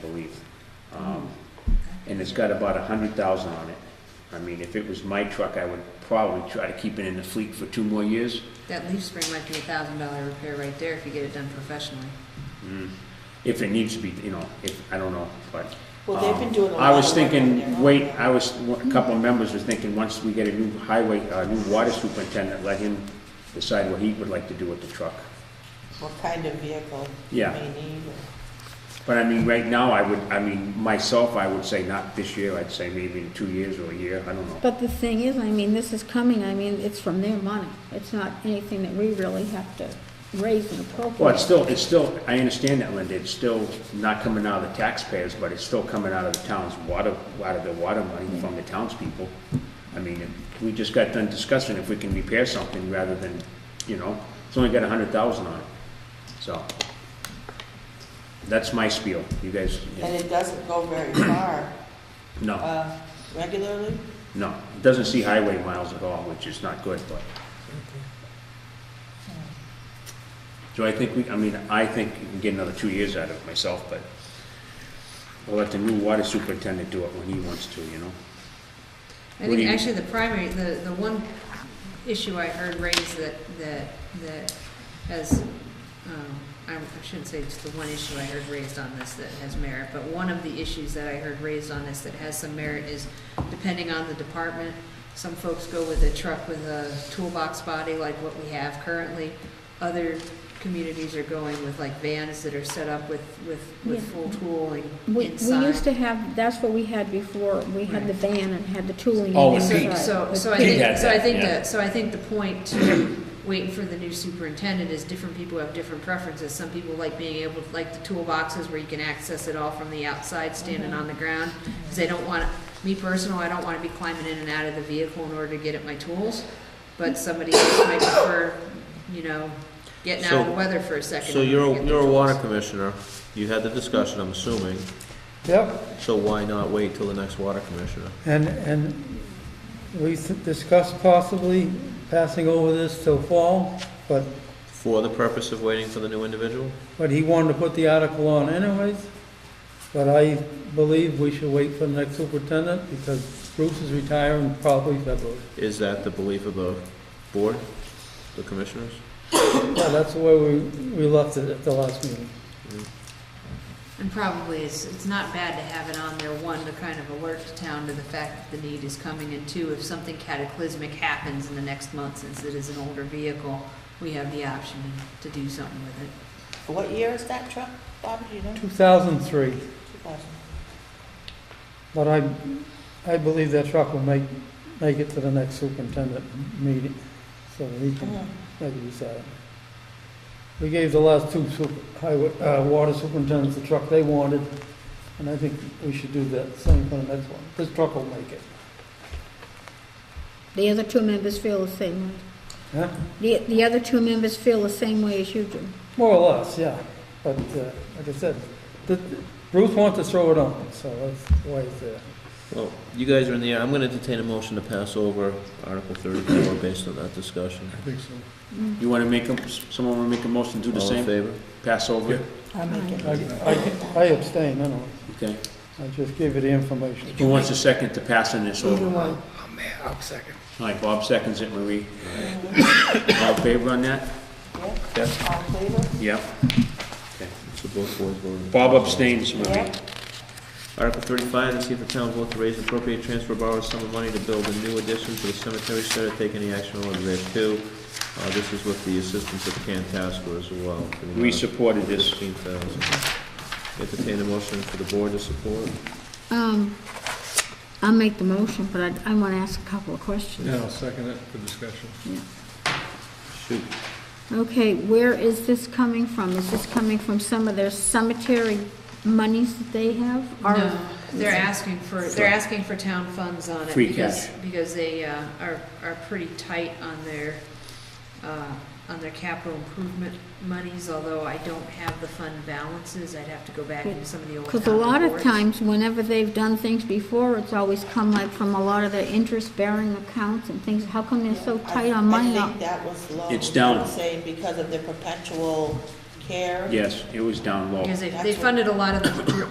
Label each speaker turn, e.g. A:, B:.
A: believe. Um, And it's got about a hundred thousand on it. I mean, if it was my truck, I would probably try to keep it in the fleet for two more years.
B: That leaf spring might be a thousand dollar repair right there if you get it done professionally.
A: If it needs to be, you know, if, I don't know, but.
C: Well, they've been
A: um,
C: doing a
A: I
C: lot
A: was
C: of work over
A: thinking,
C: there.
A: wait, I was, a couple of members were thinking, once we get a new highway, a new water superintendent, let him decide what he would like to do with the truck.
C: what kind of vehicle you
A: Yeah.
C: may need. or-
A: But I mean, right now, I would, I mean, myself, I would say not this year, I'd say maybe in two years or a year, I don't know.
D: But the thing is, I mean, this is coming, I mean, it's from their money. It's not anything that we really have to raise and appropriate.
A: Well, it's still, it's still, I understand that, Linda, it's still not coming out of the taxpayers, but it's still coming out of the town's water, out of the water money from the townspeople. I mean, if- we just got done discussing if we can repair something rather than, you know, it's only got a hundred thousand on it, so. That's my spiel, you guys,
C: And it doesn't go very far
A: no,
C: uh, regularly?
A: no, it doesn't see highway miles at all, which is not good, but. So I think we, I mean, I think you can get another two years out of it myself, but we'll let the new water superintendent do it when he wants to, you know?
B: I
A: What do
B: think
A: you-
B: actually the primary, the, the one issue I heard raised that, that, that has, um, I I shouldn't say it's the one issue I heard raised on this that has merit, but one of the issues that I heard raised on this that has some merit is depending on the department, some folks go with a truck with a toolbox body like what we have currently. Other communities are going with like vans that are set up with, with, with
D: Yeah.
B: full tooling
D: We, we
B: inside.
D: used to have, that's what we had before. We had the van and had the tooling.
A: Oh, with
D: and
A: Pete.
B: So, so,
D: inside.
B: so I
A: Pete
B: think,
A: had
B: so I
A: that,
B: think
A: yeah.
B: that, so I think the point to waiting for the new superintendent is different people have different preferences. Some people like being able, to like the toolboxes where you can access it all from the outside, standing on the ground. Cause they don't want, me personal, I don't wanna be climbing in and out of the vehicle in order to get at my tools. But somebody else might prefer, you know, getting out of the
E: So-
B: weather for a second.
E: So
B: in
E: you're,
B: order to
E: a-
B: get
E: you're a
B: their
E: water
B: tools.
E: commissioner, you had the discussion, I'm assuming,
F: Yep,
E: so why not wait till the next water commissioner?
F: and, and we s- discussed possibly passing over this till fall, but,
E: For the purpose of waiting for the new individual?
F: but he wanted to put the article on anyways. But I believe we should wait for the next superintendent because Bruce is retiring probably February.
E: Is that the belief of the board, the commissioners?
F: Yeah, that's the way we, we left it at the last meeting.
B: And probably it's, it's not bad to have it on there, one, to kind of alert the town to the fact that the need is coming, and two, if something cataclysmic happens in the next month, since it is an older vehicle, we have the option to do something with it.
C: What year is that truck, Bob, do you know?
F: Two thousand three,
C: 2000.
F: but I, I believe that truck will make, make it to the next superintendent meeting, so he can
C: Mhm.
F: Maybe you said it. We gave the last two super, highway, uh, water superintendents the truck they wanted, and I think we should do that same for the next one. This truck will make it.
D: The other two members feel the same way.
F: Huh?
D: The, the other two members feel the same way as you do.
F: More or less, yeah. But, uh, like I said, the, Bruce wants to throw it on, so that's why it's there.
E: Well, you guys are in the air, I'm gonna detain a motion to pass over Article thirty-four based on that discussion.
A: You wanna make, a- someone wanna make a motion, do the
E: All in
A: same,
E: favor?
A: pass over it,
C: I'll make it.
F: I, I- I abstain, I don't,
A: okay?
F: I just give you the information.
A: Who wants a second to passing this over? Oh, I'll second. All right, Bob seconds it, Marie. All in favor on that?
C: Yeah, all in favor?
A: Yep.
E: So both boards voted.
A: Bob abstains, Marie.
C: Yeah.
E: Article thirty-five, to see if the town will vote to raise and appropriate transfer borrow a sum of money to build a new addition to the cemetery shed or take any action relative thereto. Uh, this is with the assistance of Cantasco as well. to the
A: We
E: amount of
A: supported this.
E: $15,000. Entertain a motion for the board to support.
D: Um, I'll make the motion, but I, I wanna ask a couple of questions.
G: Yeah, I'll second it for discussion.
D: Yeah.
E: Shoot.
D: Okay, where is this coming from? Is this coming from some of their cemetery monies that they have? Or-
B: No, they're asking for, they're asking for town funds on it.
A: Free
B: because-
A: cash.
B: Because they, uh, are, are pretty tight on their, uh, on their capital improvement monies, although I don't have the fund balances, I'd have to go back into some of the old
D: Because a
B: town
D: lot of
B: reports.
D: times, whenever they've done things before, it's always come like from a lot of their interest-bearing accounts and things. How come they're so tight on money?
C: I think that was low.
A: It's down.
C: I'm Saying because of the perpetual care.
A: Yes, it was down low.
B: Because they, they
C: That's what-
B: funded a lot of the